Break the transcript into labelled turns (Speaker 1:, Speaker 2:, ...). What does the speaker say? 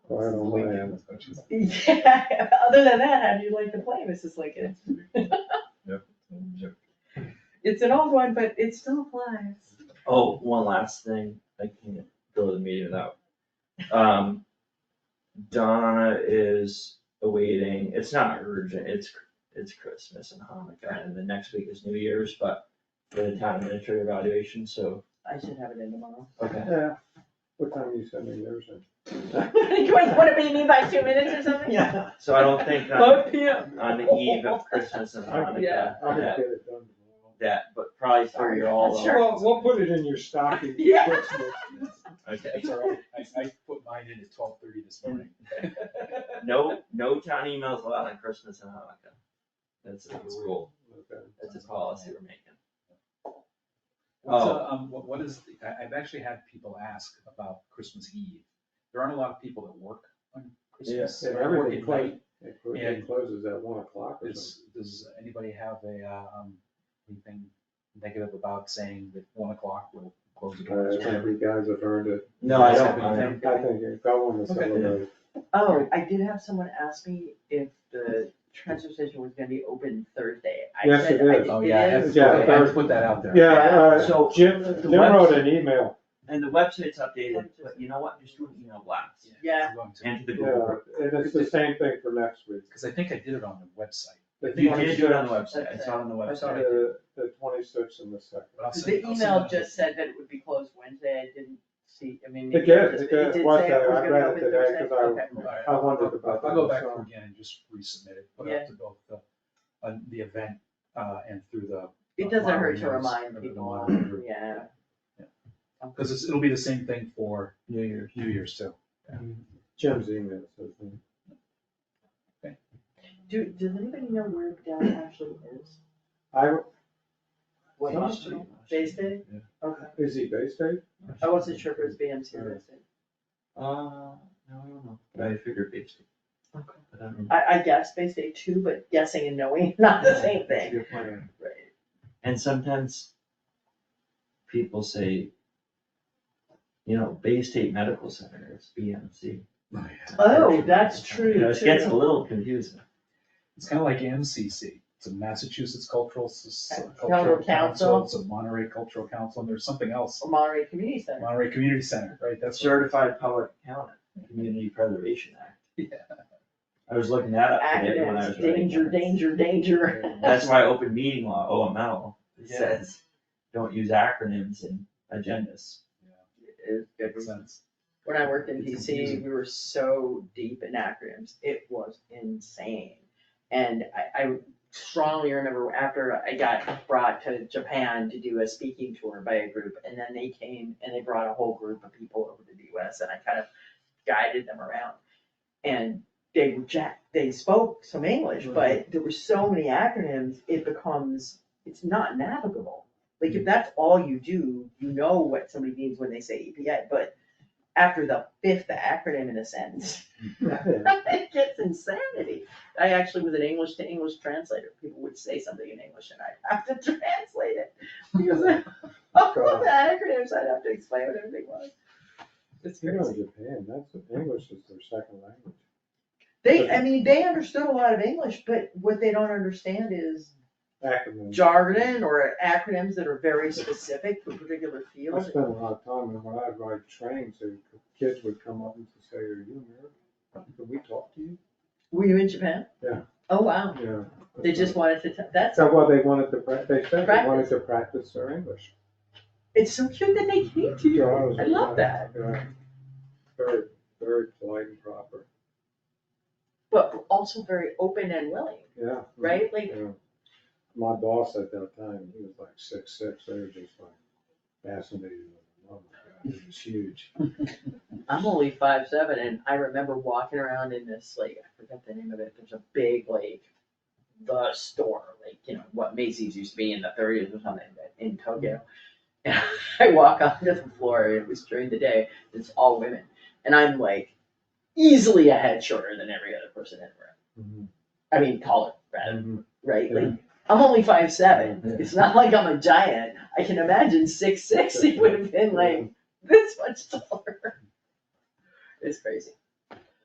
Speaker 1: I don't know, I am.
Speaker 2: Yeah, other than that, how do you like to play, Mrs. Lincoln?
Speaker 3: Yep.
Speaker 2: It's an old one, but it still applies.
Speaker 3: Oh, one last thing, I can't go to the meeting without. Um, Donna is awaiting, it's not urgent, it's, it's Christmas and Hanukkah, and the next week is New Year's, but for the town administrator evaluation, so,
Speaker 2: I should have it in tomorrow.
Speaker 3: okay.
Speaker 1: Yeah, what time are you sending yours in?
Speaker 2: Wait, what do you mean by two minutes or something? Yeah.
Speaker 3: So I don't think on,
Speaker 2: Five P M.
Speaker 3: on the eve of Christmas and
Speaker 2: Yeah.
Speaker 3: Hanukkah,
Speaker 1: I'll just
Speaker 3: that,
Speaker 1: get it done tomorrow.
Speaker 3: that, but probably for you all.
Speaker 2: Sure.
Speaker 1: Well, we'll put it in your stocking. for
Speaker 2: Yeah.
Speaker 1: Christmas.
Speaker 3: Okay,
Speaker 4: It's all right, I, I put mine in at twelve thirty this morning.
Speaker 1: Hmm.
Speaker 3: no, no town emails allowed on Christmas and Hanukkah. That's a rule,
Speaker 1: Okay.
Speaker 3: that's a policy we're making.
Speaker 4: What's,
Speaker 3: Oh.
Speaker 4: uh, um, what, what is, the- I, I've actually had people ask about Christmas Eve. There aren't a lot of people that work on Christmas.
Speaker 1: And
Speaker 4: or work
Speaker 1: everything
Speaker 4: at
Speaker 1: closes,
Speaker 4: night.
Speaker 1: it clo-
Speaker 4: And-
Speaker 1: it closes at one o'clock or something.
Speaker 4: Does, does anybody have a, uh, um, anything negative about saying that one o'clock will close the doors?
Speaker 1: Uh, I
Speaker 4: or
Speaker 1: think
Speaker 4: whatever?
Speaker 1: you guys have earned it.
Speaker 3: No, I
Speaker 4: Is
Speaker 3: don't,
Speaker 4: that what
Speaker 3: I
Speaker 4: you
Speaker 3: don't.
Speaker 4: think?
Speaker 1: I think you're going to
Speaker 4: Okay.
Speaker 1: celebrate.
Speaker 2: Oh, I did have someone ask me if the transfer station was gonna be open Thursday. I
Speaker 1: Yes, it
Speaker 2: said I
Speaker 1: is.
Speaker 2: think
Speaker 4: Oh, yeah, I
Speaker 2: it
Speaker 4: have
Speaker 2: is.
Speaker 4: to- I have
Speaker 1: there's-
Speaker 4: to put that out there.
Speaker 1: Yeah, uh,
Speaker 3: So-
Speaker 1: Jim,
Speaker 3: The
Speaker 1: Jim wrote an
Speaker 3: webs-
Speaker 1: email.
Speaker 3: And the website's updated, but you know what, just do an email blast
Speaker 2: Yeah.
Speaker 4: I'm going to.
Speaker 3: into the
Speaker 1: Yeah,
Speaker 3: Google.
Speaker 1: and it's the same thing for next week.
Speaker 4: Cause I think I did it on the website,
Speaker 1: The
Speaker 3: You did do it on the
Speaker 1: 26th,
Speaker 3: website, I saw it on the
Speaker 2: I
Speaker 3: website.
Speaker 2: saw it.
Speaker 1: The, the twenty-sixth and the second.
Speaker 4: but I'll send.
Speaker 2: The
Speaker 4: I'll send
Speaker 2: email
Speaker 4: that-
Speaker 2: just said that it would be closed Wednesday, I didn't see, I mean.
Speaker 1: It
Speaker 2: maybe I
Speaker 1: did,
Speaker 2: just-
Speaker 1: it did.
Speaker 2: say
Speaker 1: Watch that.
Speaker 2: was
Speaker 1: I
Speaker 2: gonna
Speaker 1: read it
Speaker 2: open
Speaker 1: today
Speaker 2: Thursday?
Speaker 1: 'cause I-
Speaker 2: Okay.
Speaker 4: All right,
Speaker 1: I wondered about
Speaker 4: I'll go
Speaker 1: that,
Speaker 4: back
Speaker 1: so-
Speaker 4: through again and just resubmit it, put it
Speaker 2: Yeah.
Speaker 4: up to both the, uh, the event, uh, and through the.
Speaker 2: It doesn't hurt to remind people,
Speaker 4: people.
Speaker 2: yeah.
Speaker 4: Cause it's, it'll be the same thing for
Speaker 3: New Year's.
Speaker 4: New Year's too.
Speaker 1: Jim's email, "Hmm, so.
Speaker 2: Do, does anybody know where Dell actually is?
Speaker 1: I,
Speaker 2: What
Speaker 1: Some
Speaker 2: hospital? Bay State?
Speaker 4: Yeah.
Speaker 2: Okay,
Speaker 1: is he Bay State?
Speaker 2: I wasn't sure if it was BMC or Bay State.
Speaker 3: Uh, no, I don't know, but I figured basically.
Speaker 2: Okay.
Speaker 3: But I don't know.
Speaker 2: I, I guess Bay State too, but guessing and knowing, is not the same
Speaker 3: That's a
Speaker 2: thing.
Speaker 3: good point.
Speaker 2: Right.
Speaker 3: And sometimes people say, you know, Bay State Medical Center, it's BMC.
Speaker 2: Oh, that's true
Speaker 3: You know, It
Speaker 2: too.
Speaker 3: gets a little confusing.
Speaker 4: It's kinda like MCC, it's a Massachusetts Cultural, Soc-
Speaker 2: Cultural
Speaker 4: Cultural
Speaker 2: Council. Oh.
Speaker 4: Council, it's a Monterey Cultural Council, and there's something else,
Speaker 2: Monterey Community Center.
Speaker 4: Monterey Community Center, right, that's. what-
Speaker 3: Certified Public Accountant, Community Preservation Act.
Speaker 4: Yeah.
Speaker 3: I was looking that up today when I was
Speaker 2: Acronyms,
Speaker 3: writing
Speaker 2: danger,
Speaker 3: that.
Speaker 2: danger, danger.
Speaker 3: That's why open meeting law, OML,
Speaker 4: Yeah.
Speaker 3: says, don't use acronyms in agendas.
Speaker 2: It- it
Speaker 4: Makes
Speaker 2: was-
Speaker 4: sense.
Speaker 2: When I worked in
Speaker 4: It's
Speaker 2: DC,
Speaker 4: confusing.
Speaker 2: we were so deep in acronyms, it was insane. And I, I strongly remember after I got brought to Japan to do a speaking tour by a group, and then they came and they brought a whole group of people over to the US, and I kind of guided them around. And they were jack, they spoke some English, but there were so many acronyms, it becomes, it's not navigable. Like if that's all you do, you know what somebody means when they say EPA, but after the fifth acronym in a sentence. It gets insanity. I actually was an English to English translator. People would say something in English and I'd have to translate it. Because of all the acronyms, I'd have to explain what everything was. It's
Speaker 1: You know,
Speaker 2: crazy.
Speaker 1: Japan, that's, English is their second language.
Speaker 2: They, I mean, they understood a lot of English, but what they don't understand is
Speaker 1: Acronyms.
Speaker 2: jargon or acronyms that are very specific for particular
Speaker 1: I
Speaker 2: fields.
Speaker 1: spent a lot of time, and when I'd ride trains, the kids would come up and say, are you American? Can we talk to you?
Speaker 2: Were you in Japan?
Speaker 1: Yeah.
Speaker 2: Oh, wow.
Speaker 1: Yeah.
Speaker 2: They just wanted to, t- that's
Speaker 1: So, well, they wanted to, prac- they said they wanted to practice their English.
Speaker 2: It's so cute that they came to
Speaker 1: So
Speaker 2: you.
Speaker 1: was-
Speaker 2: I love that.
Speaker 1: Yeah. Very, very polite and proper,
Speaker 2: But also very open and willing,
Speaker 1: yeah.
Speaker 2: right? Like,
Speaker 1: Yeah. My boss at that time, he was like six, six, they were just like fascinated with him, oh my god, he was huge.
Speaker 2: I'm only five seven and I remember walking around in this, like, I forget the name of it, there's a big, like, the store, like, you know, what Macy's used to be in the thirties or something, but in Tokyo. And I walk onto the floor, and it was during the day, it's all women, and I'm like easily a head shorter than every other person in the
Speaker 1: Mhm.
Speaker 2: room. I mean, taller, rather,
Speaker 1: Mhm.
Speaker 2: right? Like, I'm only five seven, it's not like I'm a giant, I can imagine six six, it would have been like this much taller. It's crazy.